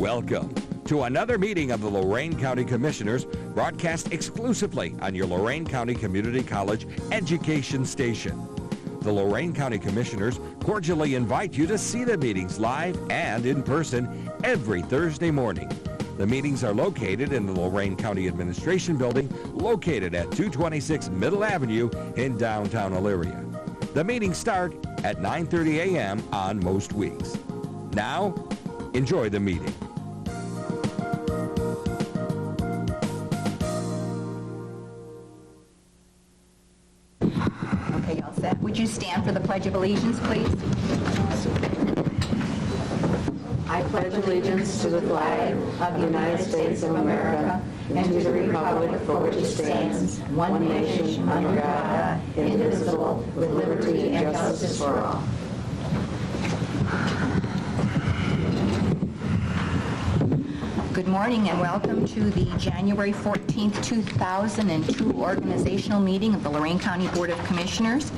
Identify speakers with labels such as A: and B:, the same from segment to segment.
A: Welcome to another meeting of the Lorain County Commissioners, broadcast exclusively on your Lorain County Community College education station. The Lorain County Commissioners cordially invite you to see the meetings live and in person every Thursday morning. The meetings are located in the Lorain County Administration Building, located at 226 Middle Avenue in downtown Elyria. The meetings start at 9:30 a.m. on most weeks. Now, enjoy the meeting.
B: Okay, y'all set. Would you stand for the Pledge of Allegiance, please?
C: I pledge allegiance to the flag of the United States of America and to the republic for which it stands, one nation, under God, indivisible, with liberty and justice for all.
B: Good morning and welcome to the January 14th, 2002 organizational meeting of the Lorraine County Board of Commissioners.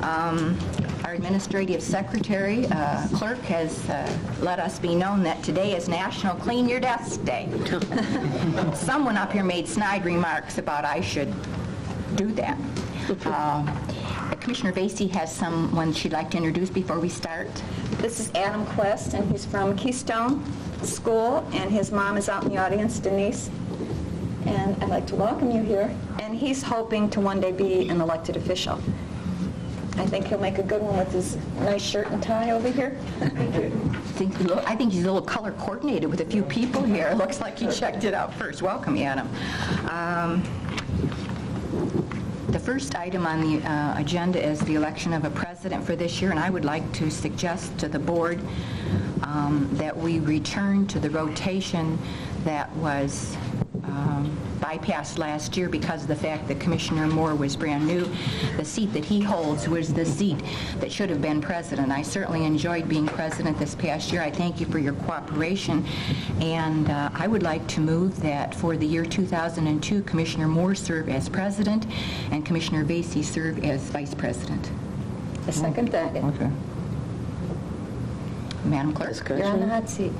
B: Um, Our administrative secretary, uh, clerk, has uh, let us be known that today is National Clean Your Desk Day. Someone up here made snide remarks about I should do that. Um, Commissioner Vacy has someone she'd like to introduce before we start.
D: This is Adam Quest, and he's from Keystone School, and his mom is out in the audience, Denise. And I'd like to welcome you here. And he's hoping to one day be an elected official. I think he'll make a good one with his nice shirt and tie over here.
B: think, look, I think he's a little color coordinated with a few people here. It looks like he checked it out first. Welcome, Adam. Um, The first item on the uh, agenda is the election of a president for this year, and I would like to suggest to the board um, that we return to the rotation that was um, bypassed last year because of the fact that Commissioner Moore was brand new. The seat that he holds was the seat that should have been president. I certainly enjoyed being president this past year. I thank you for your cooperation, and uh, I would like to move that for the year 2002, Commissioner Moore serve as president and Commissioner Vacy serve as vice president.
D: I second that.
E: Okay.
B: Madam Clerk?
D: You're on the
E: Discussion?
D: hot seat.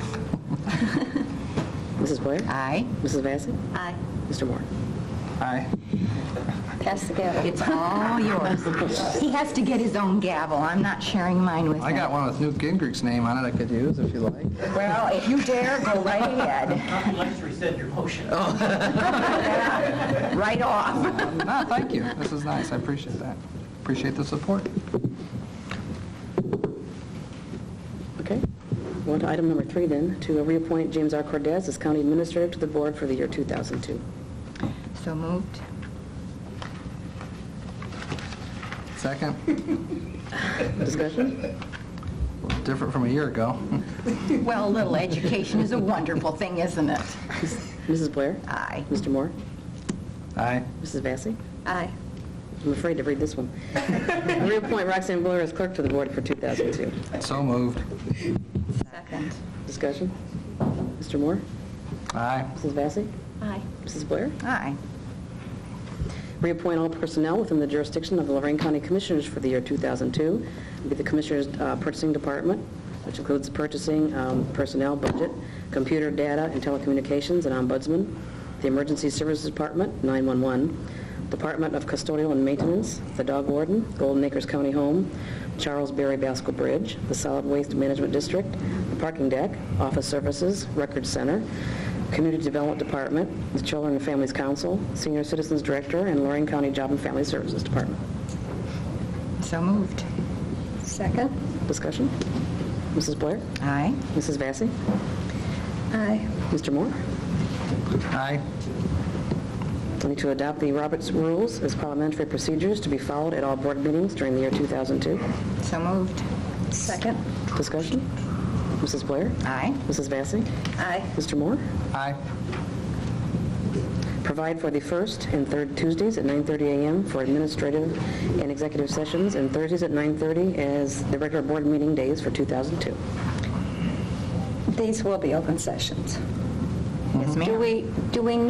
E: Mrs. Blair?
B: Aye.
E: Mrs. Vacy?
D: Aye.
E: Mr. Moore? Aye.
D: Pass the gavel.
B: It's all yours. He has to get his own gavel. I'm not sharing mine with him.
F: I got one with Newt Gingrich's name on it I could use if you like.
B: Well, if you dare, go right ahead,
G: I'd like to rescind your motion.
F: Oh.
B: right off.
F: No, Ah, thank you. This is nice. I appreciate that. Appreciate the support.
E: Okay. Well, to item number three then, to reappoint James R. Cordez as county administrator to the board for the year 2002.
B: So moved.
F: Second,
E: Discussion?
F: different from a year ago.
B: Well, a little education is a wonderful thing, isn't it?
E: Mrs. Blair?
B: Aye.
E: Mr. Moore?
F: Aye.
E: Mrs. Vacy?
D: Aye.
E: I'm afraid to read this one. Reappoint Roxanne Blair as clerk to the board for 2002.
F: So moved.
D: Second.
E: Discussion? Mr. Moore?
F: Aye.
E: Mrs. Vacy?
D: Aye.
E: Mrs. Blair?
B: Aye.
E: Reappoint all personnel within the jurisdiction of the Lorraine County Commissioners for the year 2002. It'll Be the Commissioners' uh, Purchasing Department, which includes purchasing, um, personnel, budget, computer data and telecommunications, and ombudsman. The Emergency Services Department, 911. Department of Custodial and Maintenance, the Dog Warden, Golden Acres County Home, Charles Berry Basco Bridge, the Solid Waste Management District, the Parking Deck, Office Services, Record Center, Community Development Department, the Children and Families Council, Senior Citizens Director, and Lorraine County Job and Family Services Department.
B: So moved.
D: Second.
E: Discussion? Mrs. Blair?
B: Aye.
E: Mrs. Vacy?
D: Aye.
E: Mr. Moore?
F: Aye.
E: We need to adopt the Roberts Rules as parliamentary procedures to be followed at all board meetings during the year 2002.
B: So moved.
D: Second.
E: Discussion? Mrs. Blair?
B: Aye.
E: Mrs. Vacy?
D: Aye.
E: Mr. Moore?
F: Aye.
E: Provide for the first and third Tuesdays at 9:30 a.m. for administrative and executive sessions, and Thursdays at 9:30 as the regular board meeting days for 2002.
D: These will be open sessions.
B: Yes, ma'am.
D: Do we, do we